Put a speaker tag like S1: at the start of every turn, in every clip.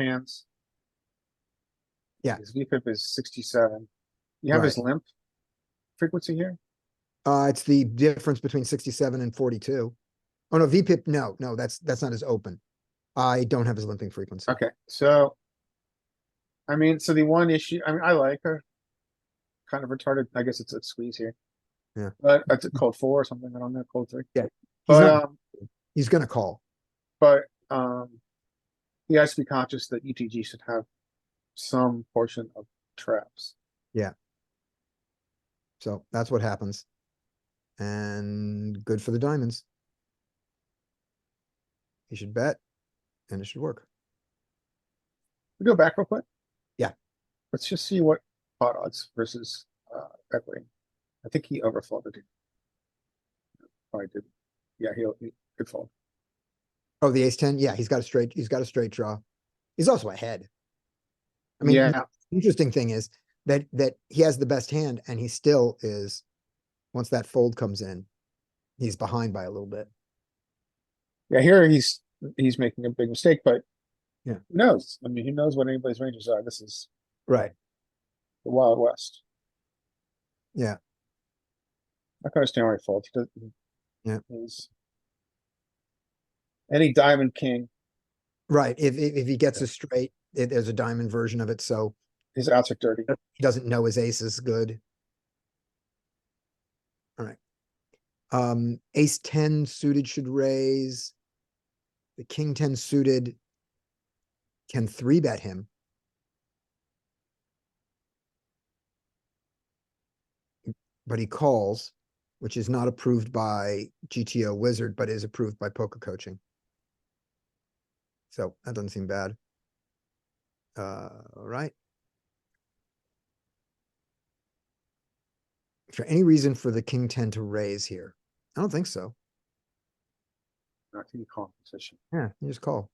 S1: plans.
S2: Yeah.
S1: His VPIP is sixty-seven. You have his limp frequency here?
S2: Uh, it's the difference between sixty-seven and forty-two. Oh, no, VPIP, no, no, that's, that's not his open. I don't have his limping frequency.
S1: Okay, so. I mean, so the one issue, I mean, I like her. Kind of retarded, I guess it's a squeeze here.
S2: Yeah.
S1: But it's a cold four or something, I don't know, cold three.
S2: Yeah,
S1: But,
S2: not-
S1: um,
S2: He's gonna call.
S1: but, um. He has to be conscious that ETG should have some portion of traps.
S2: So that's what happens. And good for the diamonds. He should bet and it should work.
S1: We go back real quick?
S2: Yeah.
S1: Let's just see what pot odds versus uh equity. I think he overfolded. Probably did. Yeah, he'll, he could fold.
S2: Oh, the ace ten, yeah, he's got a straight, he's got a straight draw. He's also ahead. I mean,
S1: Yeah,
S2: the interesting thing is that, that he has the best hand and he still is, once that fold comes in, he's behind by a little bit.
S1: yeah, here he's, he's making a big mistake, but
S2: Yeah.
S1: who knows? I mean, who knows what anybody's ranges are? This is
S2: Right.
S1: the Wild West.
S2: Yeah.
S1: I can understand why he folds. He doesn't.
S2: Yeah.
S1: he's- Any diamond king,
S2: Right, if, if, if he gets a straight, it, there's a diamond version of it, so
S1: his outs are dirty.
S2: he doesn't know his ace is good. Alright. Um, ace ten suited should raise. The king ten suited. Can three bet him. But he calls, which is not approved by GTO wizard, but is approved by poker coaching. So that doesn't seem bad. Uh, alright. Is there any reason for the king ten to raise here? I don't think so.
S1: Not in competition.
S2: Yeah, you just call.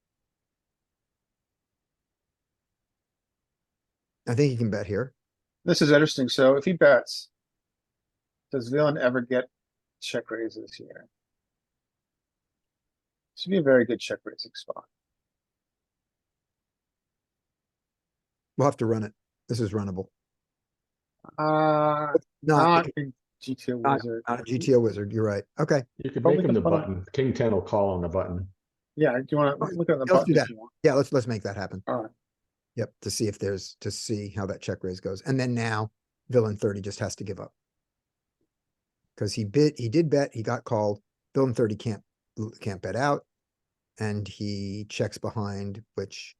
S2: I think you can bet here.
S1: This is interesting. So if he bets, does villain ever get check raises here? Should be a very good check raising spot.
S2: We'll have to run it. This is runnable.
S1: Uh,
S2: Not,
S1: not in GTO
S2: not-
S1: wizard.
S2: not a GTO wizard. You're right. Okay.
S3: You could
S1: Probably
S3: make him the
S1: gonna put up-
S3: button. King ten will call on the button.
S1: Yeah, do you wanna
S2: Okay,
S1: look at the
S2: let's
S1: button
S2: do
S1: if
S2: that.
S1: you want?
S2: Yeah, let's, let's make that happen.
S1: Alright,
S2: Yep. To see if there's, to see how that check raise goes. And then now villain thirty just has to give up. Cause he bit, he did bet, he got called. Villain thirty can't, can't bet out. And he checks behind, which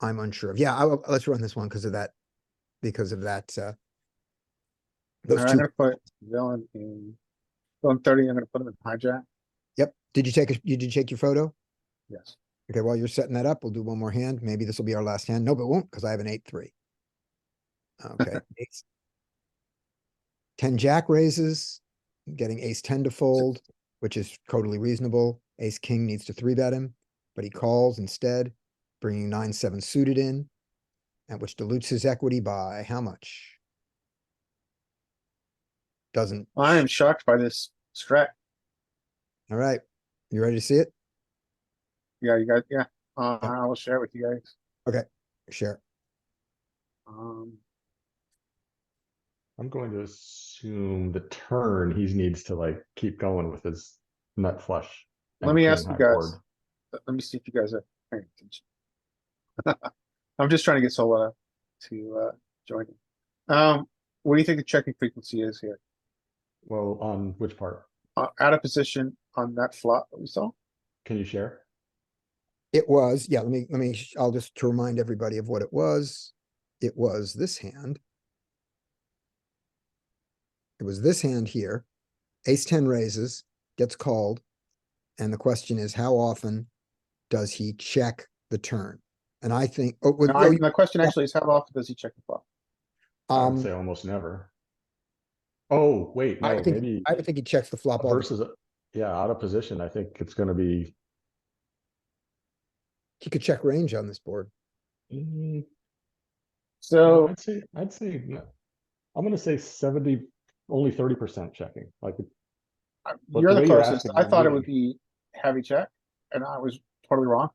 S2: I'm unsure of. Yeah, I, will- let's run this one because of that, because of that, uh, those
S1: alright, I'm
S2: two,
S1: gonna put villain in, villain thirty, I'm gonna put him in hijack,
S2: yep. Did you take, a? did you take your photo?
S1: yes.
S2: Okay, while you're setting that up, we'll do one more hand. Maybe this will be our last hand. No, but it won't, because I have an eight, three. Okay. ace. Ten jack raises, getting ace ten to fold, which is totally reasonable. Ace king needs to three bet him, but he calls instead, bringing nine, seven suited in. And which dilutes his equity by how much? Doesn't,
S1: I am shocked by this strat,
S2: all right. You ready to see it?
S1: yeah, you guys, yeah, uh, I will share it with you guys,
S2: Share.
S1: um,
S3: I'm going to assume the turn, he needs to like keep going with his nut flush.
S1: Let
S3: and
S1: me
S3: king
S1: ask you
S3: high
S1: guys.
S3: board.
S1: let let me see if you guys are paying attention. I'm just trying to get Sola to uh join. in. Um, what do you think the checking frequency is here?
S3: Well, on which part?
S1: Uh, out of position on that flop that we saw?
S3: Can you share?
S2: It was, yeah, let me, let me, sh- I'll just to remind everybody of what it was. It was this hand. It was this hand here. Ace ten raises, gets called. And the question is, how often does he check the turn? And I think, oh, with-
S1: No, I-
S2: oh,
S1: My question actually is how often does he check the flop?
S3: I would
S2: um,
S3: say almost never. Oh, wait,
S2: I
S3: no,
S2: think-
S3: maybe
S2: I don't think he checks the flop all, the-
S3: versus, yeah, out of position, I think it's gonna be.
S2: he could check range on this board.
S3: mm,
S1: So
S3: I'd say, I'd say, no. I'm gonna say seventy, only thirty percent checking, like,
S1: uh,
S3: But
S1: you're the
S3: the way you're
S1: closest.
S3: asking,
S1: I
S3: I'm
S1: thought it
S3: really-
S1: would be heavy check and I was totally wrong.